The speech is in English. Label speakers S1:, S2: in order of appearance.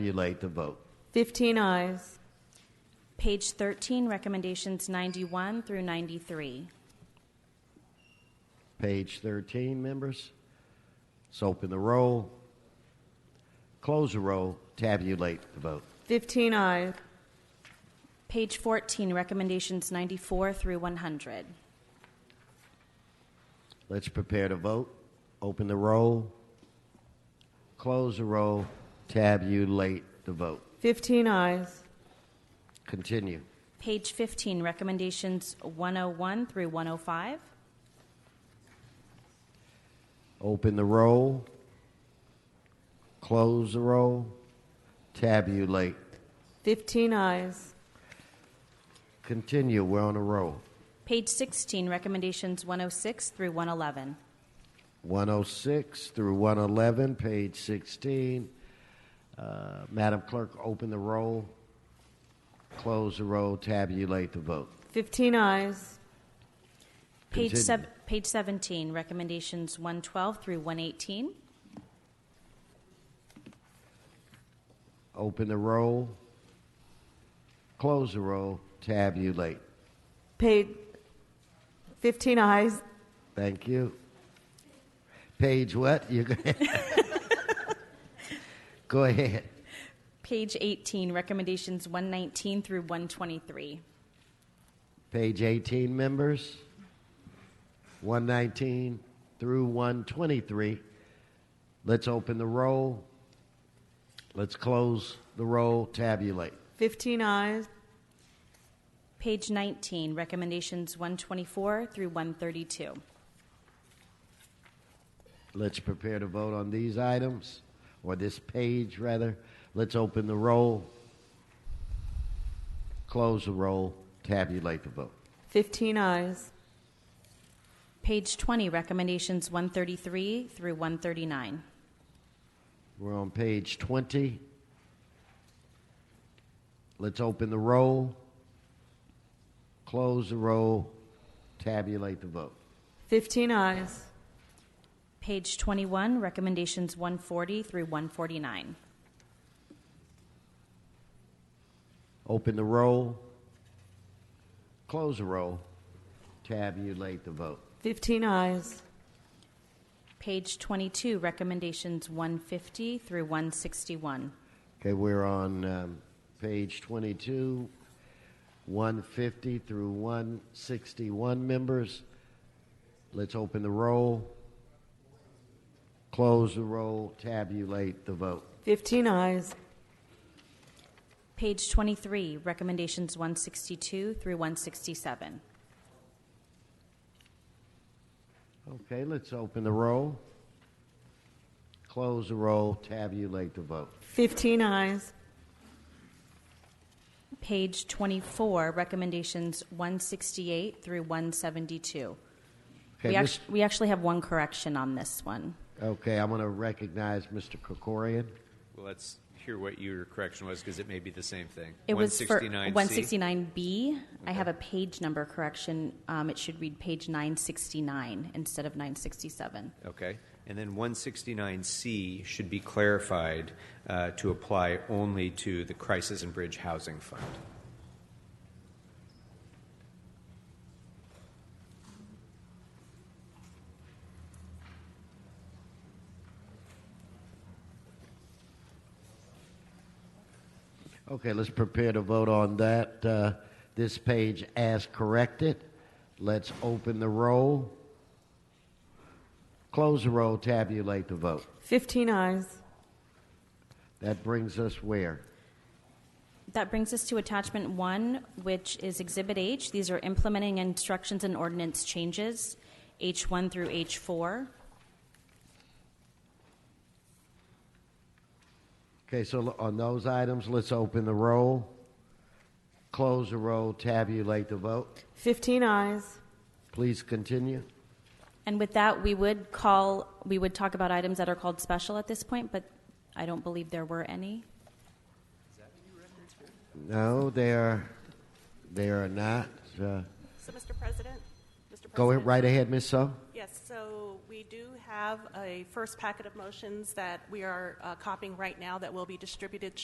S1: Relate the vote.
S2: 15 eyes.
S3: Page 13, recommendations 91 through 93.
S1: Page 13, members. Let's open the roll, close the roll, tabulate the vote.
S2: 15 eyes.
S3: Page 14, recommendations 94 through 100.
S1: Let's prepare to vote. Open the roll, close the roll, tabulate the vote.
S2: 15 eyes.
S1: Continue.
S3: Page 15, recommendations 101 through 105.
S1: Open the roll, close the roll, tabulate.
S2: 15 eyes.
S1: Continue. We're on a roll.
S3: Page 16, recommendations 106 through 111.
S1: 106 through 111, page 16. Uh, Madam Clerk, open the roll, close the roll, tabulate the vote.
S2: 15 eyes.
S3: Page,
S1: Continue.
S3: sev- page 17, recommendations 112 through 118.
S1: Open the roll, close the roll, tabulate.
S2: Paid. 15 eyes.
S1: Thank you. Page what? You go Go ahead.
S3: Page 18, recommendations 119 through 123.
S1: Page 18, members. 119 through 123. Let's open the roll. Let's close the roll, tabulate.
S2: 15 eyes.
S3: Page 19, recommendations 124 through 132.
S1: Let's prepare to vote on these items, or this page rather. Let's open the roll, close the roll, tabulate the vote.
S2: 15 eyes.
S3: Page 20, recommendations 133 through 139.
S1: We're on page 20. Let's open the roll, close the roll, tabulate the vote.
S2: 15 eyes.
S3: Page 21, recommendations 140 through 149.
S1: Open the roll, close the roll, tabulate the vote.
S2: 15 eyes.
S3: Page 22, recommendations 150 through 161.
S1: Okay, we're on um, page 22, 150 through 161 members. Let's open the roll, close the roll, tabulate the vote.
S2: 15 eyes.
S3: Page 23, recommendations 162 through 167.
S1: Okay, let's open the roll, close the roll, tabulate the vote.
S2: 15 eyes.
S3: Page 24, recommendations 168 through 172.
S1: Okay,
S3: we,
S1: Mis-
S3: act- we actually have one correction on this one.
S1: okay I want to recognize Mr. Kokorian.
S4: Well, let's hear what your correction was because it may be the same thing.
S3: It was for
S4: 169C.
S3: 169B. I have a page number correction. Um, it should read page 969 instead of 967.
S4: Okay. And then 169C should be clarified uh, to apply only to the Crisis and Bridge Housing Fund.
S1: Okay, let's prepare to vote on that. Uh, this page as corrected. Let's open the roll. Close the roll, tabulate the vote.
S2: 15 eyes.
S1: That brings us where?
S3: That brings us to attachment one, which is Exhibit H. These are implementing instructions and ordinance changes, H1 through H4.
S1: Okay, so l- on those items, let's open the roll. Close the roll, tabulate the vote.
S2: 15 eyes.
S1: Please continue.
S3: And with that, we would call, we would talk about items that are called special at this point, but I don't believe there were any.
S1: No, they are, they are not. Uh,
S5: So, Mr. President? Mr.
S1: go
S5: President?
S1: right ahead, Ms. So.
S5: Yes, so we do have a first packet of motions that we are uh, copying right now that will be distributed